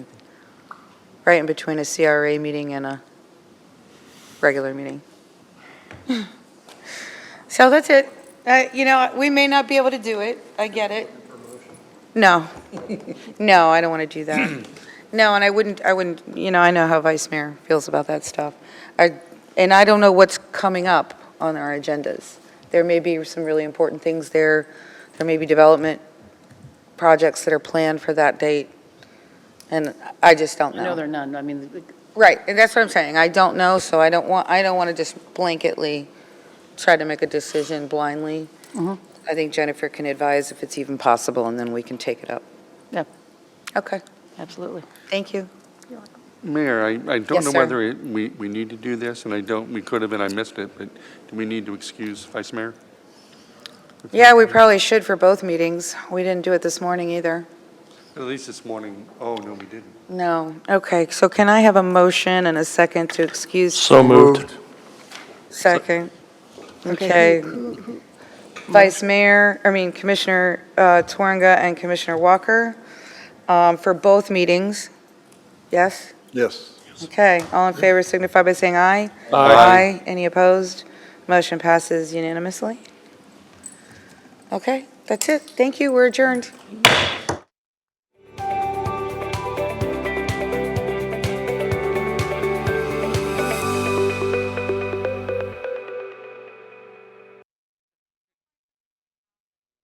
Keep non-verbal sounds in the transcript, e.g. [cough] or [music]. right in between a CRA meeting and a regular meeting. [sighs] So that's it. Uh, You know, we may not be able to do it, I get it. [laughs] No, no, I don't want to do [clears throat] that. No, and I wouldn't, I wouldn't, you know, I know how Vice Mayor feels about that stuff. I- And I don't know what's coming up on our agendas. There may be some really important things there, there may be development projects that are planned for that date, and I just don't I know there are none, I mean, the- Right, and that's what I'm saying, I don't know, so I don't want, I don't want to just blanketly try to make a decision blindly. Mhm. I think Jennifer can advise if it's even possible, and then we can take it up. Yep. Okay, absolutely. thank you. Mayor, I, I Yes, don't know sir. whether it- we, we need to do this, and I don't, we could have, and I missed it, but do we need to excuse Vice Mayor? Yeah, we probably should for both meetings, we didn't do it this morning either. At least this morning, oh, no, we didn't. No, okay, so can I have a motion and a second to excuse? So moved. Second, okay. Vice Mayor, I mean Commissioner uh, Twanga and Commissioner Walker um, for both meetings, yes? Yes. Okay, all in favor signify by saying aye. Aye. Any opposed? Motion passes unanimously. Okay, that's it. Thank you, we're adjourned.